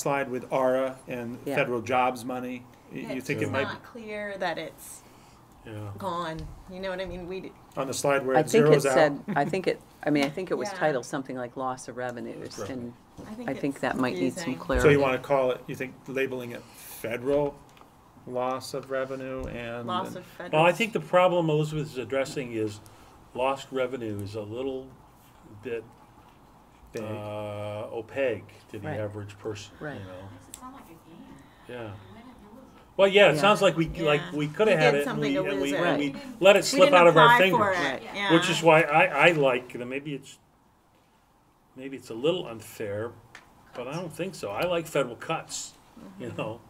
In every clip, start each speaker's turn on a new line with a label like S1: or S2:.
S1: slide with ARA and
S2: Yeah.
S1: federal jobs money. You- You
S3: It's
S1: think it
S3: just
S1: might,
S3: not clear that it's
S1: yeah,
S3: gone, you know what I mean? We, d-
S1: on the slide where
S2: I
S1: it
S2: think it
S1: zeroes out?
S2: said, I think it, I mean, I think it was
S3: Yeah.
S2: titled something like loss of revenues,
S1: Right.
S2: and
S3: I think
S2: I
S3: it's
S2: think that might need some
S3: confusing.
S2: clarity.
S1: So you wanna call it, you think labeling it federal loss of revenue and?
S3: Loss of
S4: Well, I
S3: federal,
S4: think the problem Elizabeth is addressing is lost revenue is a little bit
S1: Big.
S4: uh, opaque to the
S2: Right.
S4: average person, you
S2: Right.
S4: know?
S5: Makes it sound like a game.
S4: Yeah.
S5: You win it, you lose it.
S4: Well, yeah, it
S2: Yeah.
S4: sounds like we, like,
S3: Yeah.
S4: we could
S3: We
S4: have had
S3: did
S4: it and
S3: something
S4: we,
S3: to
S4: and we,
S3: lose
S2: it.
S4: and we
S5: Right.
S4: let it
S3: we
S4: slip
S3: didn't
S4: out of our
S3: apply for
S4: fingers.
S3: it,
S5: Right.
S3: yeah.
S4: Which is why I, I like, maybe it's, maybe it's a little unfair, but I don't think so. I like federal cuts,
S2: Mm-hmm.
S4: you know?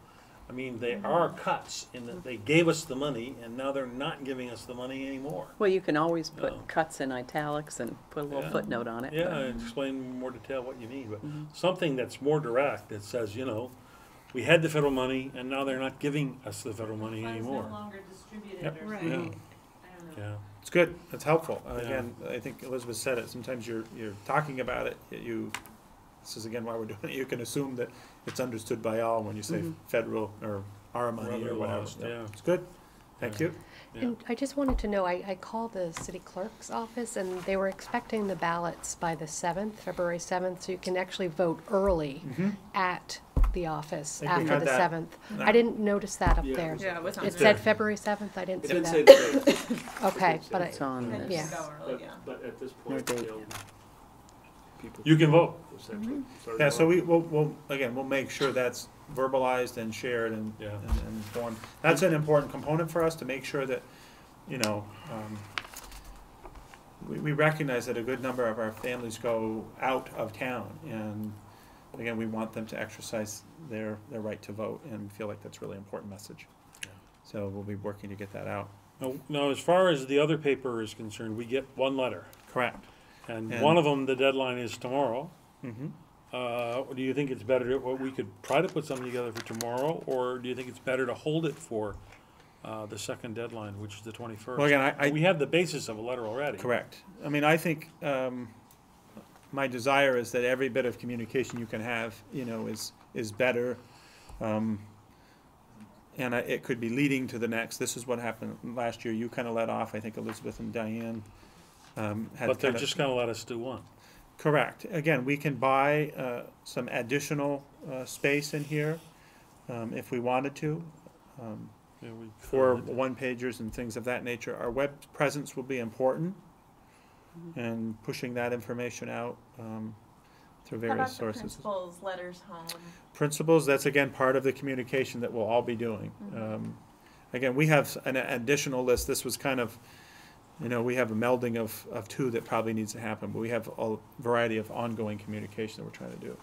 S4: I mean, they are cuts in that they gave us the money and now they're not giving us the money anymore.
S2: Well, you can always
S4: No.
S2: put cuts in italics and put a little
S4: Yeah.
S2: footnote on it.
S4: Yeah, and explain in more detail what you need, but something that's more direct that says, you know, we had the federal money and now they're not giving us the federal money
S5: Funds no
S4: anymore.
S5: longer distributed
S1: Yep.
S5: or
S3: Right.
S5: something.
S4: Yeah,
S5: I don't know.
S4: yeah,
S1: It's good, it's helpful. And
S4: Yeah.
S1: Again, I think Elizabeth said it, sometimes you're, you're talking about it, yet you, this is again why we're doing it, you can assume that it's understood by all when you say
S2: Mm-hmm.
S1: federal or ARA money or
S4: Revenue
S1: whatever.
S4: loss, yeah.
S1: It's good, thank
S4: Yeah.
S1: you.
S4: yeah.
S6: And I just wanted to know, I, I called the city clerk's office and they were expecting the ballots by the seventh, February seventh, so you can actually vote early
S1: Hmm. Mm-hmm.
S6: at the office
S1: I think we
S6: after
S1: had
S6: the
S1: that.
S6: seventh.
S1: No.
S6: I didn't notice that up
S7: Yeah, it
S6: there.
S7: was-
S3: Yeah, it was on
S6: It
S3: there.
S6: said February seventh, I didn't
S7: It
S6: see
S7: didn't say
S6: that.
S7: the date,
S6: Okay,
S7: It's
S6: but I,
S2: It's on
S3: Then
S2: this.
S3: you
S6: Yeah.
S3: go early,
S7: but,
S3: yeah.
S7: but at this
S2: No
S7: point,
S2: date.
S7: you know, people.
S4: You can vote.
S7: essentially started
S1: Yeah, so
S7: voting.
S1: we, we'll, we'll, again, we'll make sure that's verbalized and shared and,
S4: Yeah.
S1: and and informed. That's an important component for us to make sure that, you know, um, we, we recognize that a good number of our families go out of town and, again, we want them to exercise their, their right to vote and feel like that's a really important message.
S4: Yeah.
S1: So we'll be working to get that out.
S4: Now, now, as far as the other paper is concerned, we get one letter,
S1: Correct.
S4: and
S1: And-
S4: one of them, the deadline is tomorrow.
S1: Mm-hmm.
S4: Uh, do you think it's better to, well, we could try to put something together for tomorrow, or do you think it's better to hold it for, uh, the second deadline, which is the twenty-first?
S1: Well, again, I, I.
S4: We have the basis of a letter already.
S1: Correct. I mean, I think, um, my desire is that every bit of communication you can have, you know, is, is better. Um, and I, it could be leading to the next, this is what happened last year, you kinda let off, I think Elizabeth and Diane, um, had
S4: But they're
S1: kinda-
S4: just gonna let us do one.
S1: Correct. Again, we can buy uh, some additional uh, space in here um, if we wanted to, um,
S4: Yeah, we
S1: for
S4: could.
S1: one-pagers and things of that nature. Our web presence will be important
S3: Mm-hmm.
S1: and pushing that information out um, through
S3: How about
S1: various
S3: the
S1: sources.
S3: principal's letters home?
S1: Principals, that's again part of the communication that we'll all be doing.
S3: Mm-hmm.
S1: Um, Again, we have an additional list, this was kind of, you know, we have a melding of, of two that probably needs to happen, but we have a variety of ongoing communication that we're trying to do.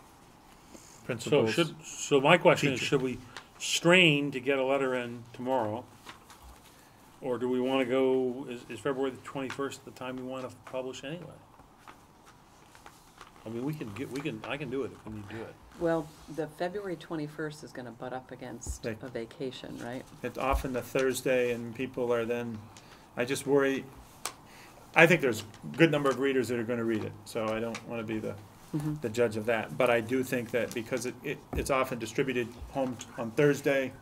S4: So
S1: Principals,
S4: should, so my question is,
S1: Teacher.
S4: should we strain to get a letter in tomorrow? Or do we wanna go, is, is February the twenty-first the time we wanna publish anyway? I mean, we can get, we can, I can do it if we need to do it.
S2: Well, the February twenty-first is gonna butt up against
S1: Right.
S2: a vacation, right?
S1: it's often the Thursday and people are then, I just worry, I think there's a good number of readers that are gonna read it, so I don't wanna be the,
S2: Mhm.
S1: the judge of that. But I do think that because it, it, it's often distributed home t- on Thursday,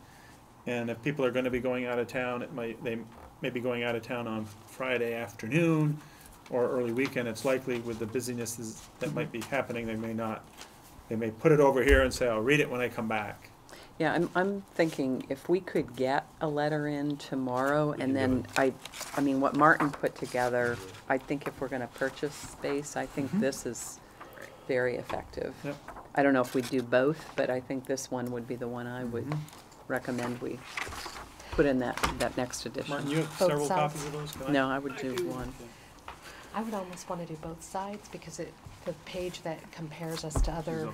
S1: and if people are gonna be going out of town, it might, they may be going out of town on Friday afternoon or early weekend, it's likely with the businesses that might be happening, they may not, they may put it over here and say, I'll read it when I come back.
S2: Yeah, I'm, I'm thinking if we could get a letter in tomorrow
S4: can do
S2: and then I, I mean, what Martin put together, I think if we're gonna purchase space, I think this is very effective.
S1: Yep.
S2: I don't know if we'd do both, but I think this one would be the one I would recommend we put in that, that next
S4: Martin,
S2: edition.
S4: you have
S6: Both
S4: several
S6: sides.
S4: copies of those? Can I-
S2: No, I would do one.
S6: I would almost want to do both sides because it, the page that compares us to other.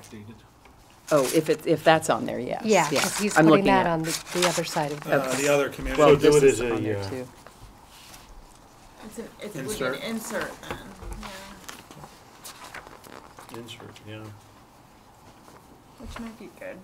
S2: Oh, if it, if that's on there, yes,
S6: Yeah,
S2: yes.
S6: 'cause he's
S2: I'm
S6: putting
S2: looking
S6: that
S2: at-
S6: on the, the other side of.
S1: Uh, the other community.
S2: Well,
S4: So do
S2: this
S4: it
S2: is
S4: as a,
S2: on there
S4: uh,
S2: too.
S3: It's an, it's, would be an
S1: Insert.
S3: insert then, yeah,
S4: Insert, yeah.
S3: which might be good.